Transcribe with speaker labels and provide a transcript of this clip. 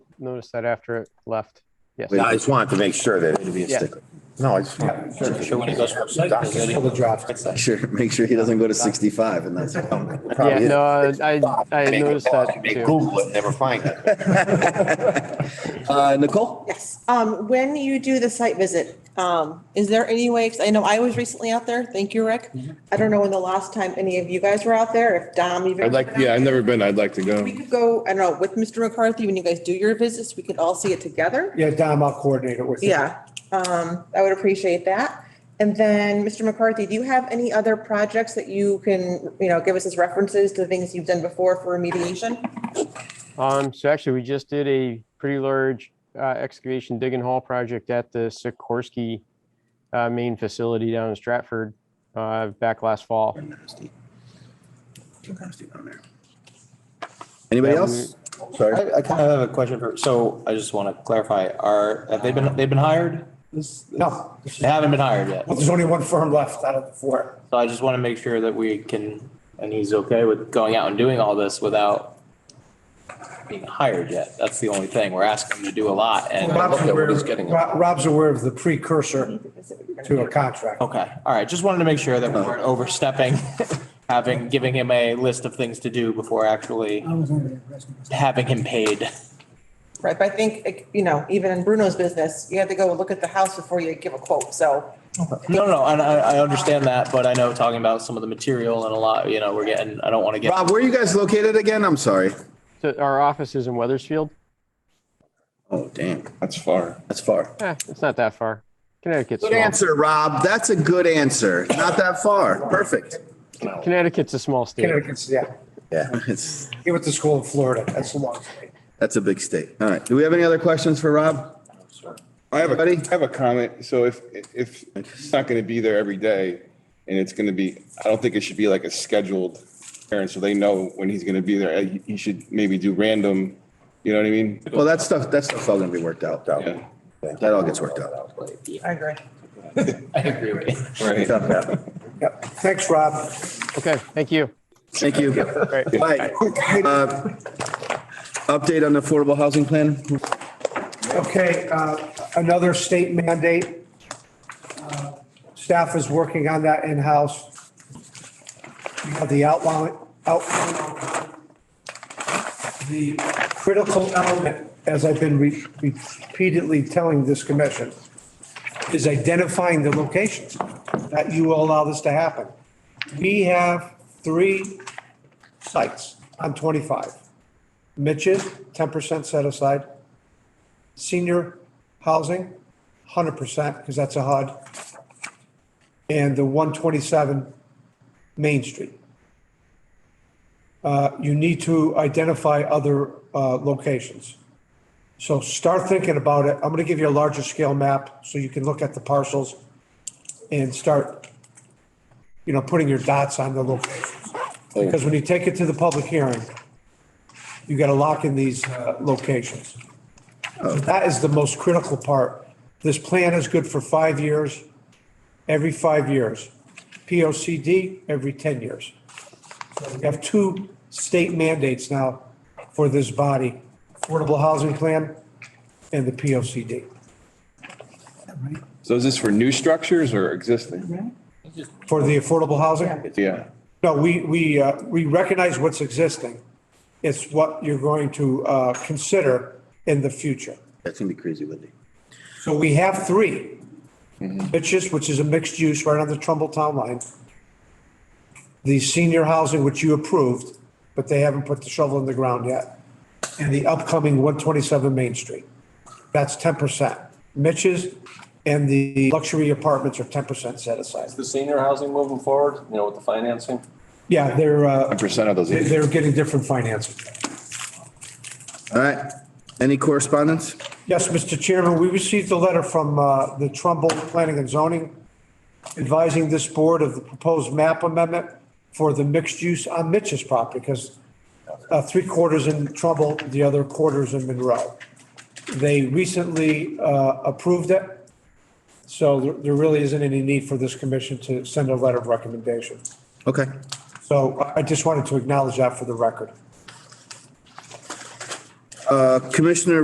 Speaker 1: noticed that after it left. Yes.
Speaker 2: I just wanted to make sure that it'd be a
Speaker 1: Yeah.
Speaker 2: sticker. No, I just.
Speaker 3: Sure, when it goes for site, it's gonna be-
Speaker 4: Sure, make sure he doesn't go to sixty-five and that's.
Speaker 1: Yeah,
Speaker 4: probably it.
Speaker 1: no, I, I I noticed that
Speaker 2: They
Speaker 1: too.
Speaker 2: Google it, never find it.
Speaker 4: Uh, Nicole?
Speaker 5: Yes, um, when you do the site visit, um, is there any way, 'cause I know I was recently out there, thank you, Rick.
Speaker 6: Mm-hmm.
Speaker 5: I don't know when the last time any of you guys were out there, if Dom even.
Speaker 6: I'd like, yeah, I've never been. I'd like to go.
Speaker 5: We could go, I don't know, with Mr. McCarthy, when you guys do your visits, we could all see it together.
Speaker 7: Yeah, Dom, I'll coordinate it with you.
Speaker 5: Yeah, um, I would appreciate that. And then, Mr. McCarthy, do you have any other projects that you can, you know, give us as references to things you've done before for remediation?
Speaker 1: Um, so actually, we just did a pretty large uh, excavation dig and haul project at the Sikorsky uh, main facility down in Stratford uh, back last fall.
Speaker 4: Anybody
Speaker 1: Yeah,
Speaker 4: else? Sorry.
Speaker 3: I, I kind of have a question for, so I just want to clarify, are, have they been, they've been hired? This-
Speaker 7: No, there's-
Speaker 3: They haven't been hired yet.
Speaker 7: well, there's only one firm left out of the four.
Speaker 3: So I just want to make sure that we can, and he's okay with going out and doing all this without being hired yet. That's the only thing. We're asking him to do a lot and.
Speaker 7: Rob's aware,
Speaker 6: he's getting at.
Speaker 7: Rob- Rob's aware of the precursor to a contract.
Speaker 3: Okay, all right, just wanted to make sure that we weren't overstepping, having, giving him a list of things to do before actually having him paid.
Speaker 5: Right, but I think, like, you know, even in Bruno's business, you have to go look at the house before you give a quote, so.
Speaker 3: No, no, and I, I understand that, but I know talking about some of the material and a lot, you know, we're getting, I don't want to get.
Speaker 4: Rob, where are you guys located again? I'm sorry.
Speaker 1: So our office is in Weathersfield.
Speaker 4: Oh, damn,
Speaker 6: That's far.
Speaker 4: that's far.
Speaker 1: Eh, it's not that far. Connecticut's
Speaker 4: Good
Speaker 1: small.
Speaker 4: answer, Rob. That's a good answer. Not that far. Perfect.
Speaker 1: Connecticut's a small state.
Speaker 7: Connecticut's, yeah,
Speaker 4: Yeah, it's,
Speaker 7: he went to school in Florida, that's the long story.
Speaker 4: that's a big state. All right. Do we have any other questions for Rob?
Speaker 6: I have a,
Speaker 4: Buddy?
Speaker 6: I have a comment. So if, if it's not going to be there every day and it's going to be, I don't think it should be like a scheduled errand. So they know when he's going to be there. Uh, He he should maybe do random, you know what I mean?
Speaker 4: Well, that stuff, that stuff's all gonna be worked out though.
Speaker 6: Yeah.
Speaker 4: That all gets worked out.
Speaker 5: I agree.
Speaker 3: I agree with you.
Speaker 6: Right.
Speaker 7: Yep. Thanks, Rob.
Speaker 1: Okay, thank you.
Speaker 4: Thank you.
Speaker 1: Right.
Speaker 4: Bye. Uh, Update on the affordable housing plan?
Speaker 7: Okay, uh, another state mandate. Uh, Staff is working on that in-house. We have the outline, outline. The critical element, as I've been re- repeatedly telling this commission, is identifying the locations that you will allow this to happen. We have three sites on 25. Mitch's, 10% set aside senior housing, hundred percent, because that's a HUD. And the one twenty-seven Main Street. Uh, you need to identify other, uh, locations. So start thinking about it. I'm gonna give you a larger scale map so you can look at the parcels and start, you know, putting your dots on the locations. Because when you take it to the public hearing, you gotta lock in these, uh, locations. That is the most critical part. This plan is good for five years, every five years. P O C D every 10 years. So We have two state mandates now for this body, Affordable Housing Plan and the P O C D.
Speaker 6: So is this for new structures or existing?
Speaker 7: For the affordable housing?
Speaker 6: Yeah.
Speaker 7: No, we, we, uh, we recognize what's existing. It's what you're going to uh, consider in the future.
Speaker 4: That's gonna be crazy, Wendy.
Speaker 7: So we have three.
Speaker 6: Mm-hmm.
Speaker 7: Bitches, which is a mixed use right on the Trumbull Town Line. The senior housing, which you approved, but they haven't put the shovel in the ground yet. And the upcoming 127 Main Street. That's 10%. Mitch's and the luxury apartments are 10% set aside.
Speaker 8: the senior housing moving forward, you know, with the financing?
Speaker 7: Yeah, they're, uh,
Speaker 6: Percent of those.
Speaker 7: they're getting different financing.
Speaker 4: All right. Any correspondence?
Speaker 7: Yes, Mr. Chairman, we received a letter from uh, the Trumbull Planning and Zoning advising this board of the proposed map amendment for the mixed use on Mitch's property because uh, three quarters in Trumbull, the other quarters in Monroe. They recently uh, approved it, so there- there really isn't any need for this commission to send a letter of recommendation.
Speaker 4: Okay.
Speaker 7: So I- I just wanted to acknowledge that for the record.
Speaker 4: Uh, Commissioner